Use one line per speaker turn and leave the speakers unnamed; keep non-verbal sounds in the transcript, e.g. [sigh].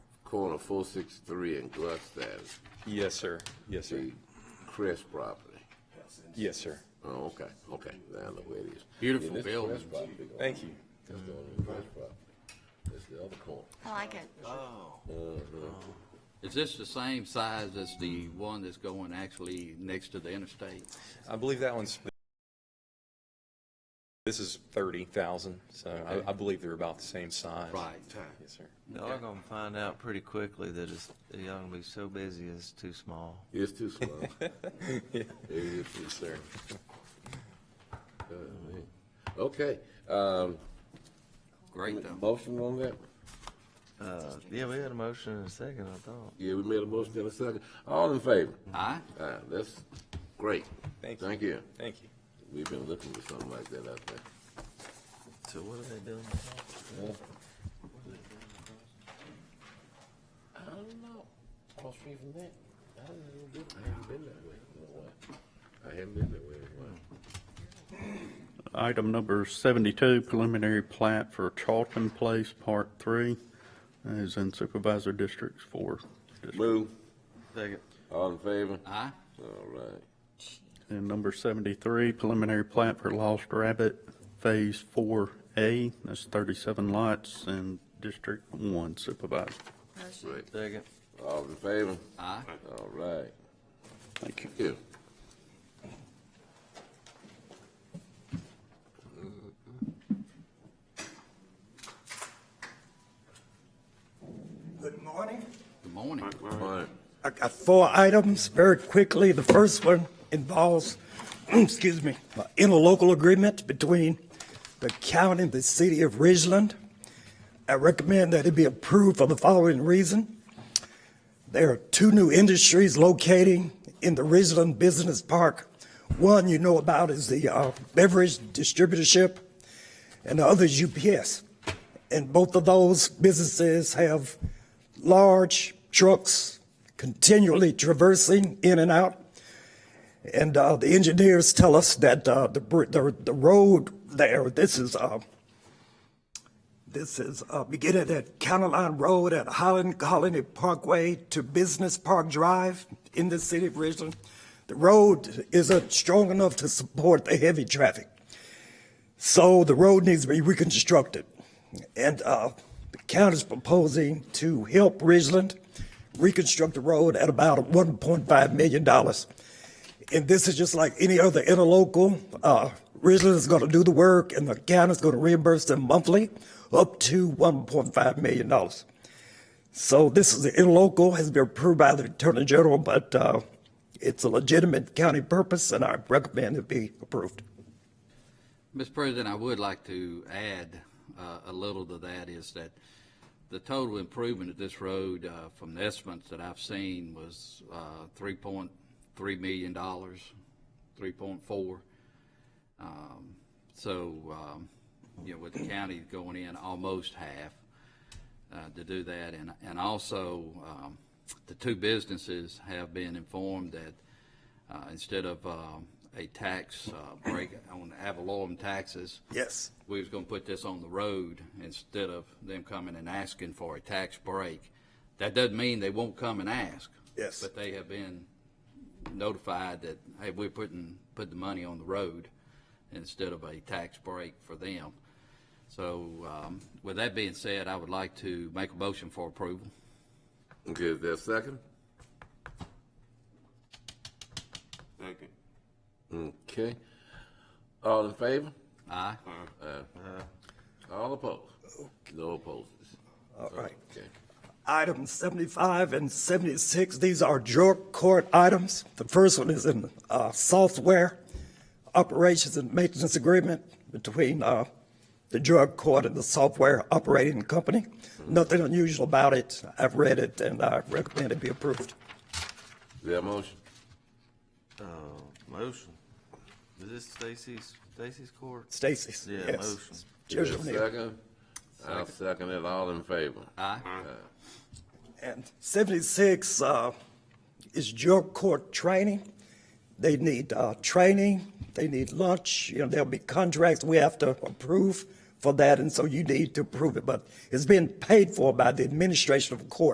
corner 463 and Gluckstadt,
Yes, sir. Yes, sir.
the Crest property.
Yes, sir.
Oh, okay, okay, now I know where it is. Beautiful building. That's
Thank you.
the only Crest property. That's the other corner.
I like it.
Is this the same size as the one that's going actually next to the interstate?
I believe that one's, this is 30,000, so I, I believe they're about the same size.
Right.
Yes, sir.
Y'all are gonna find out pretty quickly that it's, y'all gonna be so busy it's too small.
It's too small. It is too
Yes, sir.
small, man. Okay, um,
Great though.
motion on that?
Uh, yeah, we had a motion in a second, I thought.
Yeah, we made a motion in a second. All in favor?
Aye?
All right, that's great.
Thank you.
Thank you.
Thank you.
We've been looking for something like that out there.
So what are they doing?
I don't know. Across street from that. I don't know. I haven't been that way in a while. I haven't been that way in a while.
Item number 72, preliminary plat for Charlton Place, Part 3, is in Supervisor Districts 4.
Move.
Second.
All in favor?
Aye?
All right.
And number 73, preliminary plat for Lost Rabbit, Phase 4A, that's 37 lots in District 1 Supervisor.
Motion.
Second.
All in favor?
Aye?
All right.
Thank you.
Here.
Good morning.
Good morning.
Fine.
I got four items very quickly. The first one involves, [clears throat] excuse me, an interlocal agreement between the county and the city of Ridgeland. I recommend that it be approved for the following reason. There are two new industries locating in the Ridgeland Business Park. One you know about is the uh, beverage distributorship, and the other is UPS. And both of those businesses have large trucks continually traversing in and out. And uh, the engineers tell us that uh, the, br- the the road there, this is uh, this is uh, beginning at County Line Road at Highland Colony Parkway to Business Park Drive in the city of Richland. The road isn't strong enough to support the heavy traffic. So the road needs to be reconstructed. And uh, the county's proposing to help Ridgeland reconstruct the road at about $1.5 million. And this is just like any other interlocal. Uh, Ridgeland is going to do the work, and the county's going to reimburse them monthly up to $1.5 million. So this is the interlocal, has been approved by the Attorney General, but uh, it's a legitimate county purpose, and I recommend it be approved.
Mr. President, I would like to add uh, a little to that is that the total improvement of this road uh, from the estimates that I've seen was uh, $3.3 million, 3.4. Um, So, um, you know, with the county going in almost half uh, to do that. And, and also, um, the two businesses have been informed that uh, instead of um, a tax uh, break on avalorum taxes.
Yes.
We was gonna put this on the road instead of them coming and asking for a tax break. That doesn't mean they won't come and ask.
Yes.
But they have been notified that, hey, we're putting, put the money on the road instead of a tax break for them. So, um, with that being said, I would like to make a motion for approval.
Okay, is there a second?
Second.
Okay. All in favor?
Aye?
All opposed? No opposes.
All right.
Okay.
Items 75 and 76, these are drug court items. The first one is in uh, software operations and maintenance agreement between uh, the drug court and the software operating company. Nothing unusual about it. I've read it, and I recommend it be approved.
Is there a motion?
Uh, motion. Is this Stacy's, Stacy's court?
Stacy's.
Yeah,
yes.
motion.
Is
Judge
there a
O'Neill.
second? I'll second it. All in favor?
Aye?
And 76 uh, is drug court training. They need uh, training, they need lunch, you know, there'll be contracts we have to approve for that, and so you need to approve it. But it's being paid for by the administration of court.